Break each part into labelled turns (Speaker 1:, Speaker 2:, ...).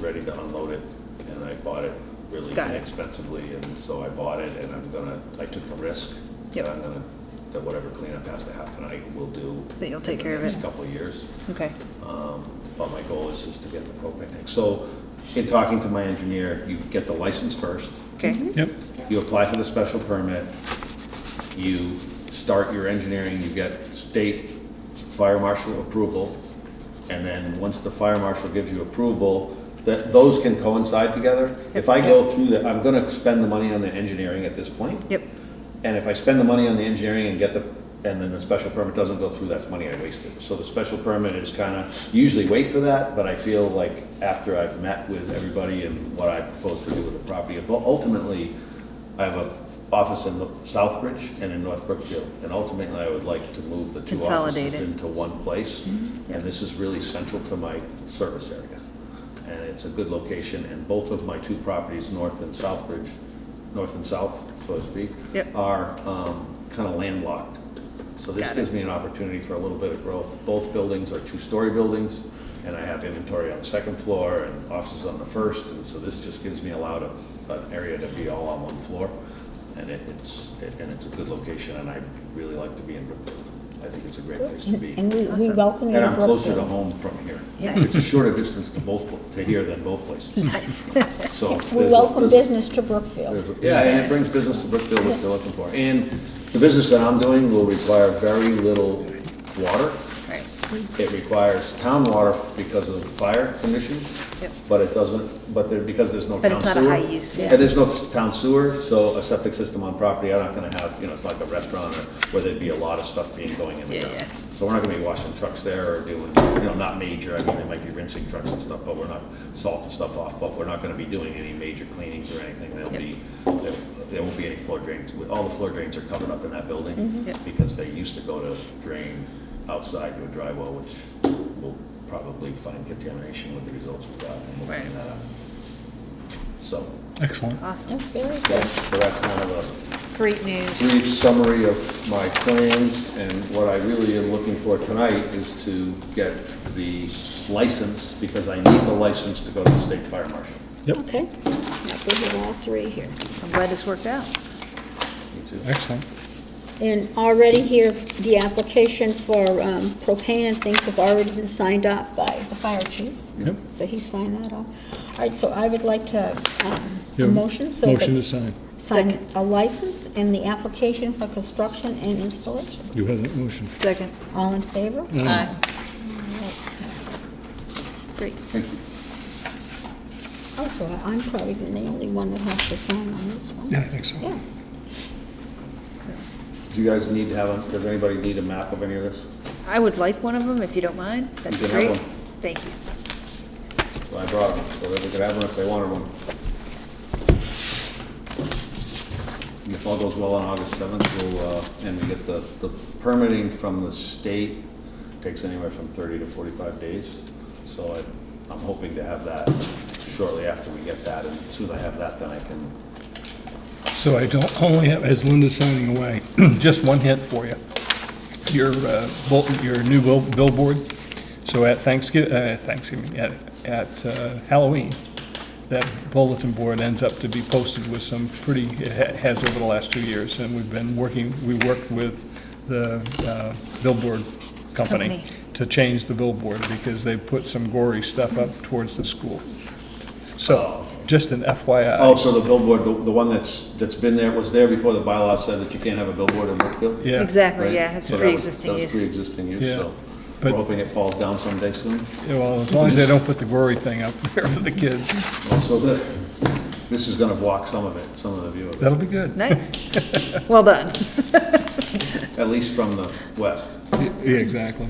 Speaker 1: ready to unload it, and I bought it really
Speaker 2: Got it.
Speaker 1: inexpensively, and so I bought it, and I'm gonna, I took the risk.
Speaker 2: Yep.
Speaker 1: that I'm gonna, that whatever cleanup has to happen, I will do.
Speaker 2: That you'll take
Speaker 1: in the
Speaker 2: care of
Speaker 1: next
Speaker 2: it.
Speaker 1: Couple of years.
Speaker 2: Okay,
Speaker 1: Um, But my goal is just to get the propane tank. So in talking to my engineer, you get the license first,
Speaker 2: okay,
Speaker 3: Yep,
Speaker 1: you apply for the special permit, you start your engineering, you get state fire marshal approval, and then once the fire marshal gives you approval, that, those can coincide together. If I go through that, I'm gonna spend the money on the engineering at this point.
Speaker 2: yep,
Speaker 1: And if I spend the money on the engineering and get the, and then the special permit doesn't go through, that's money I wasted. So the special permit is kind of, usually wait for that, but I feel like after I've met with everybody and what I propose to do with the property, but ultimately, I have a office in Southbridge and in North Brookfield, and ultimately, I would like to move the two
Speaker 2: Consolidate
Speaker 1: offices
Speaker 2: it.
Speaker 1: into one place. And this is really central to my service area. And it's a good location, and both of my two properties, North and Southbridge, North and South, so to speak,
Speaker 2: Yep.
Speaker 1: are kind of landlocked. So this
Speaker 2: Got it.
Speaker 1: gives me an opportunity for a little bit of growth. Both buildings are two-story buildings, and I have inventory on the second floor and offices on the first, and so this just gives me a lot of, an area to be all on one floor. And it- it's, it- and it's a good location, and I really like to be in Brookfield. I think it's a great place to be.
Speaker 4: And we, we
Speaker 2: Awesome.
Speaker 4: welcome you
Speaker 1: And
Speaker 4: to
Speaker 1: I'm closer to
Speaker 4: Brookfield.
Speaker 1: home from here.
Speaker 2: Nice.
Speaker 1: It's a shorter distance to both, pla- to here than both places,
Speaker 2: nice.
Speaker 1: so.
Speaker 4: We
Speaker 1: there's a-
Speaker 4: welcome
Speaker 1: there's a-
Speaker 4: business to Brookfield.
Speaker 1: there's a- Yeah, and it brings business to Brookfield, which they're looking for. And the business that I'm doing will require very little water.
Speaker 2: Right.
Speaker 1: It requires town water because of fire conditions,
Speaker 2: Yep.
Speaker 1: but it doesn't, but there, because there's no
Speaker 2: But
Speaker 1: town
Speaker 2: it's
Speaker 1: sewer.
Speaker 2: not a high use, yeah.
Speaker 1: And there's no town sewer, so a septic system on property, I'm not gonna have, you know, it's like a restaurant or where there'd be a lot of stuff being going in the
Speaker 2: Yeah,
Speaker 1: ground.
Speaker 2: yeah.
Speaker 1: So we're not gonna be washing trucks there or doing, you know, not major, I mean, they might be rinsing trucks and stuff, but we're not salting stuff off, but we're not gonna be doing any major cleanings or anything. There'll
Speaker 2: Yep.
Speaker 1: be, there there won't be any floor drains. All the floor drains are covered up in that building
Speaker 2: Mm-hmm. Yep.
Speaker 1: because they used to go to drain outside to a dry well, which will probably find contamination with the results of that, and we'll clean
Speaker 2: Right.
Speaker 1: that up. So,
Speaker 3: excellent.
Speaker 2: Awesome.
Speaker 4: That's very
Speaker 1: yeah,
Speaker 4: good.
Speaker 1: so that's kind of a
Speaker 2: Great news.
Speaker 1: brief summary of my plans, and what I really am looking for tonight is to get the license, because I need the license to go to the state fire marshal.
Speaker 3: Yep,
Speaker 4: Okay. Now, we have all three here.
Speaker 2: I'm glad this worked out.
Speaker 1: Me too.
Speaker 3: excellent.
Speaker 4: And already here, the application for um, propane and things have already been signed off by the fire chief.
Speaker 3: Yep.
Speaker 4: So he signed that off. All right, so I would like to, um, a
Speaker 3: Yeah,
Speaker 4: motion, so. that-
Speaker 3: Motion to sign.
Speaker 4: Sign a license and the application for construction and installation.
Speaker 3: You have that motion.
Speaker 2: Second.
Speaker 4: All in favor?
Speaker 1: Mm.
Speaker 3: Aye.
Speaker 2: Great.
Speaker 1: Thank you.
Speaker 4: Also, Oh, I'm probably the only one that has to sign on this one.
Speaker 3: Yeah, I think so.
Speaker 4: Yeah.
Speaker 1: Do you guys need to have, a- does anybody need a map of any of this?
Speaker 2: I would like one of them if you don't mind. That'd be
Speaker 1: You can have
Speaker 2: great.
Speaker 1: one.
Speaker 2: Thank you.
Speaker 1: So I brought them, so that they could have one if they wanted one. And if all goes well on August seventh, we'll, uh, and we get the, the permitting from the state takes anywhere from thirty to forty-five days. So I, I'm hoping to have that shortly after we get that, and as soon as I have that, then I can,
Speaker 3: So I don't only have, as Linda's signing away, just one hint for you. Your, uh, bul- your new bill- billboard, so at Thanksgiving, uh, Thanksgiving, at, at uh, Halloween, that bulletin board ends up to be posted with some pretty, it ha- has over the last two years, and we've been working, we worked with the uh, billboard
Speaker 2: Company.
Speaker 3: company to change the billboard, because they put some gory stuff up towards the school. So, just an FYI.
Speaker 1: oh, so the billboard, the, the one that's, that's been there, was there before the bylaw said that you can't have a billboard in Brookfield?
Speaker 3: Yeah.
Speaker 1: Right?
Speaker 2: Exactly, yeah, it's
Speaker 1: So that was-
Speaker 2: pre-existing
Speaker 1: That was
Speaker 2: use.
Speaker 1: pre-existing use,
Speaker 3: Yeah.
Speaker 1: so we're
Speaker 3: But-
Speaker 1: hoping it falls down someday soon.
Speaker 3: Yeah, well, as long as they don't put the gory thing up there for the kids,
Speaker 1: Well, So this, this is gonna block some of it, some of the view of it,
Speaker 3: that'll be good.
Speaker 2: Nice. Well done.
Speaker 1: at least from the west.
Speaker 3: Yeah, exactly.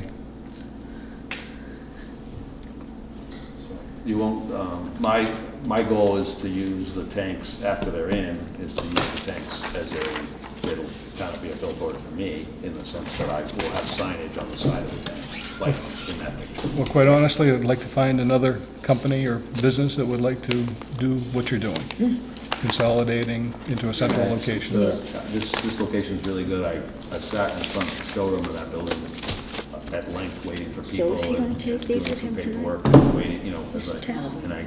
Speaker 1: You won't, um, my, my goal is to use the tanks after they're in, is to use the tanks as a, it'll kind of be a billboard for me, in the sense that I will have signage on the side of the tank, like in that picture.
Speaker 3: Well, quite honestly, I'd like to find another company or business that would like to do what you're doing, consolidating into a central location.
Speaker 1: The- This, this location's really good, I, I sat in front of the showroom of that building uh, at length, waiting for people.
Speaker 4: is he gonna
Speaker 1: and
Speaker 4: take these with
Speaker 1: doing some
Speaker 4: him tonight?
Speaker 1: paperwork, Waiting, you know, as
Speaker 4: This
Speaker 1: I,
Speaker 4: towel?
Speaker 1: and I